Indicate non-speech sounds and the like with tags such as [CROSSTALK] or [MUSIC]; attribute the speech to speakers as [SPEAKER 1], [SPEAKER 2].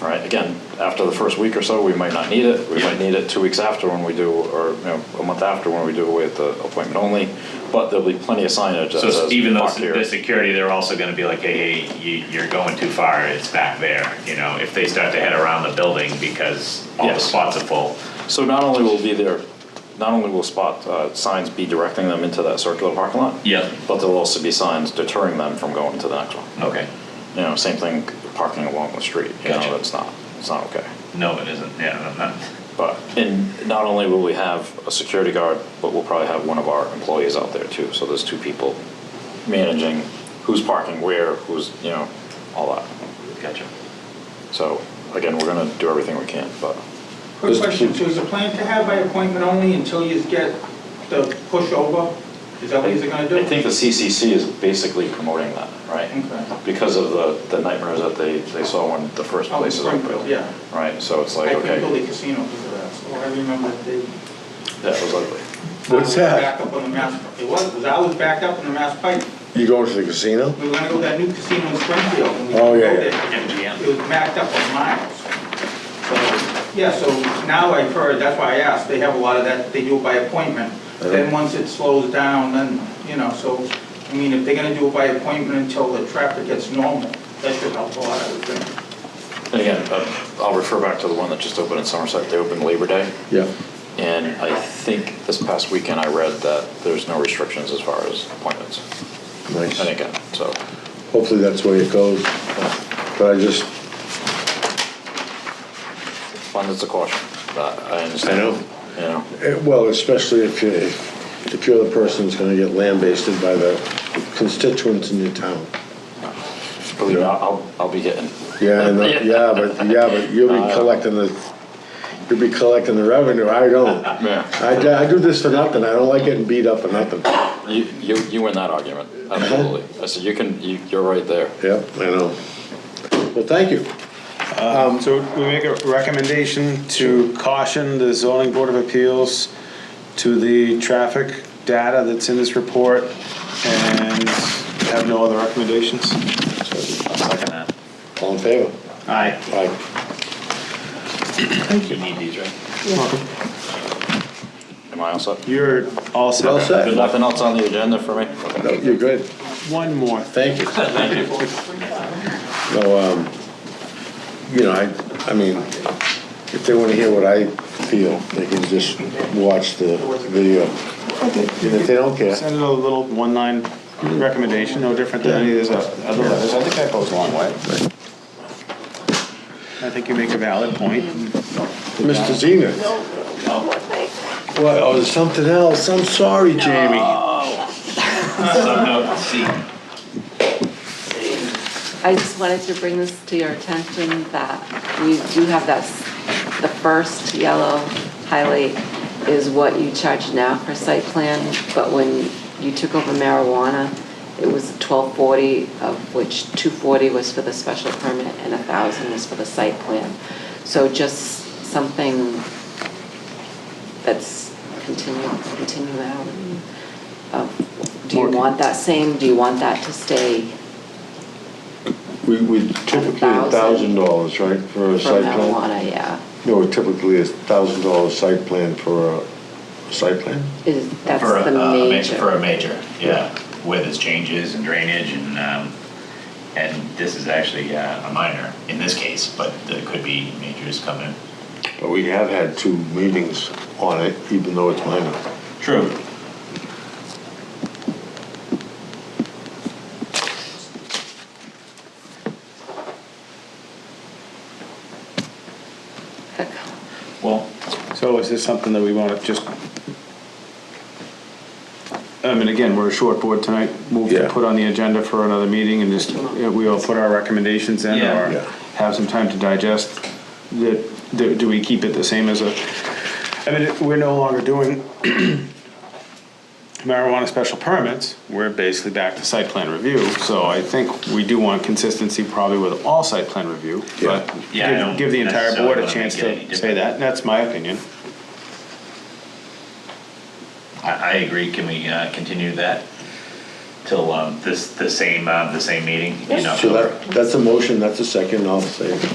[SPEAKER 1] right? Again, after the first week or so, we might not need it. We
[SPEAKER 2] Yeah.
[SPEAKER 1] might need it two weeks after when we do, or, you know, a month after when we do away with the appointment only. But there'll be plenty of signage that
[SPEAKER 2] So
[SPEAKER 1] says
[SPEAKER 2] even though
[SPEAKER 1] park
[SPEAKER 2] the
[SPEAKER 1] here.
[SPEAKER 2] security, they're also gonna be like, hey, hey, you, you're going too far, it's back there, you know, if they start to head around the building because all the
[SPEAKER 1] Yes.
[SPEAKER 2] spots are full.
[SPEAKER 1] So not only will be there, not only will spot, uh, signs be directing them into that circular parking lot.
[SPEAKER 2] Yep.
[SPEAKER 1] But there'll also be signs deterring them from going to the next one.
[SPEAKER 2] Okay,
[SPEAKER 1] You know, same thing parking along the street, you know,
[SPEAKER 2] Gotcha.
[SPEAKER 1] that's not, it's not okay.
[SPEAKER 2] no, it isn't, yeah, I'm not,
[SPEAKER 1] But, and not only will we have a security guard, but we'll probably have one of our employees out there too. So there's two people managing who's parking where, who's, you know, all that.
[SPEAKER 2] gotcha.
[SPEAKER 1] So again, we're gonna do everything we can, but
[SPEAKER 3] Quick
[SPEAKER 1] Mr.
[SPEAKER 3] question, so is the plan to have by appointment only until you get the pushover? Is that what you're gonna do?
[SPEAKER 1] I think the CCC is basically promoting that, right?
[SPEAKER 3] Okay.
[SPEAKER 1] Because of the, the nightmares that they, they saw when the first
[SPEAKER 3] Oh,
[SPEAKER 1] places
[SPEAKER 3] Springfield,
[SPEAKER 1] opened.
[SPEAKER 3] yeah.
[SPEAKER 1] Right, so it's
[SPEAKER 3] I
[SPEAKER 1] like,
[SPEAKER 3] couldn't build
[SPEAKER 1] okay,
[SPEAKER 3] a casino because of that, so I remember they.
[SPEAKER 1] that was ugly.
[SPEAKER 4] What's
[SPEAKER 3] Back
[SPEAKER 4] that?
[SPEAKER 3] up on the Mass, it was, because I was backed up on the Mass Pike.
[SPEAKER 4] You going to the casino?
[SPEAKER 3] We were gonna go to that new casino in Springfield. and we
[SPEAKER 4] Oh, yeah,
[SPEAKER 3] go
[SPEAKER 4] yeah.
[SPEAKER 3] there.
[SPEAKER 2] MGM.
[SPEAKER 3] It was backed up on miles. So, yeah, so now I've heard, that's why I asked, they have a lot of that, they do it by appointment.
[SPEAKER 4] Uh-huh.
[SPEAKER 3] Then once it slows down, then, you know, so, I mean, if they're gonna do it by appointment until the traffic gets normal, that should help a lot, I would think.
[SPEAKER 1] And again, uh, I'll refer back to the one that just opened in Somerset. They opened Labor Day.
[SPEAKER 4] Yeah.
[SPEAKER 1] And I think this past weekend I read that there's no restrictions as far as appointments.
[SPEAKER 4] Nice.
[SPEAKER 1] And again, so,
[SPEAKER 4] Hopefully that's the way it goes. But I just,
[SPEAKER 1] fun is a caution, but I understand.
[SPEAKER 4] I know.
[SPEAKER 1] You know,
[SPEAKER 4] eh, well, especially if you, if if you're the person that's gonna get lambasted by the constituents in your town.
[SPEAKER 1] believe me, I'll, I'll be hitting.
[SPEAKER 4] Yeah, I know. Uh, yeah, but, yeah, but you'll be collecting the, you'll be collecting the revenue, I don't.
[SPEAKER 1] Yeah.
[SPEAKER 4] I, do- I do this for nothing, I don't like getting beat up for nothing.
[SPEAKER 1] You, you, you win that argument,
[SPEAKER 4] [LAUGHS]
[SPEAKER 1] absolutely. I said, you can, you, you're right there.
[SPEAKER 4] Yep, I know. Well, thank you.
[SPEAKER 5] So we make a recommendation to caution the zoning board of appeals to the traffic data that's in this report and have no other recommendations?
[SPEAKER 2] Second that.
[SPEAKER 4] All in favor?
[SPEAKER 5] Aye.
[SPEAKER 4] Aye.
[SPEAKER 2] You need these, right?
[SPEAKER 1] Am I all set?
[SPEAKER 5] You're all set.
[SPEAKER 4] All set.
[SPEAKER 1] Nothing else on the agenda for me? Okay.
[SPEAKER 4] No, You're good,
[SPEAKER 5] One more. thing.
[SPEAKER 4] thank you. No, um, you know, I, I mean, if they wanna hear what I feel, they can just watch the video. And if they don't care,
[SPEAKER 5] Send it a little one-line recommendation, no different than any of those other others. I think that goes a long way. I think you make a valid point.
[SPEAKER 4] Mr. Zener. What, oh, there's something else, I'm sorry, Jamie.
[SPEAKER 2] Sub-note C.
[SPEAKER 6] I just wanted to bring this to your attention that we do have that, s- the first yellow highlight is what you charge now for site plan, but when you took over marijuana, it was twelve forty, of which two forty was for the special permit and a thousand was for the site plan. So just something that's continue, continue out. of- Do you
[SPEAKER 5] More-
[SPEAKER 6] want that same, do you want that to stay?
[SPEAKER 4] We, we typically a thousand
[SPEAKER 6] thousand.
[SPEAKER 4] dollars, right, for a
[SPEAKER 6] From
[SPEAKER 4] site plan?
[SPEAKER 6] marijuana, yeah.
[SPEAKER 4] No, typically a thousand dollar site plan for a site plan?
[SPEAKER 6] Is, that's
[SPEAKER 2] For a-
[SPEAKER 6] the
[SPEAKER 2] uh, ma-
[SPEAKER 6] major.
[SPEAKER 2] For a major, yeah, with its changes and drainage and, um, and this is actually uh, a minor in this case, but there could be majors coming.
[SPEAKER 4] But we have had two meetings on it, even though it's minor.
[SPEAKER 2] True. Well,
[SPEAKER 5] So is this something that we want to just, I mean, again, we're a short board tonight. Move
[SPEAKER 4] Yeah.
[SPEAKER 5] to put on the agenda for another meeting and just, uh, we all put our recommendations in
[SPEAKER 2] Yeah.
[SPEAKER 5] or
[SPEAKER 4] Yeah.
[SPEAKER 5] have some time to digest. That, that- do we keep it the same as a, I mean, we're no longer doing [CLEARS THROAT] marijuana special permits. We're basically back to site plan review. So I think we do want consistency probably with all site plan review.
[SPEAKER 4] Yeah.
[SPEAKER 5] But
[SPEAKER 2] Yeah, I
[SPEAKER 5] give
[SPEAKER 2] don't
[SPEAKER 5] give the entire
[SPEAKER 2] necessarily
[SPEAKER 5] board a
[SPEAKER 2] wanna
[SPEAKER 5] chance
[SPEAKER 2] make it any
[SPEAKER 5] to say that. That's my opinion.
[SPEAKER 2] I, I agree, can we uh, continue that till um, this, the same, uh, the same meeting? in
[SPEAKER 4] So
[SPEAKER 2] October?
[SPEAKER 4] that, that's a motion, that's a second, I'll say.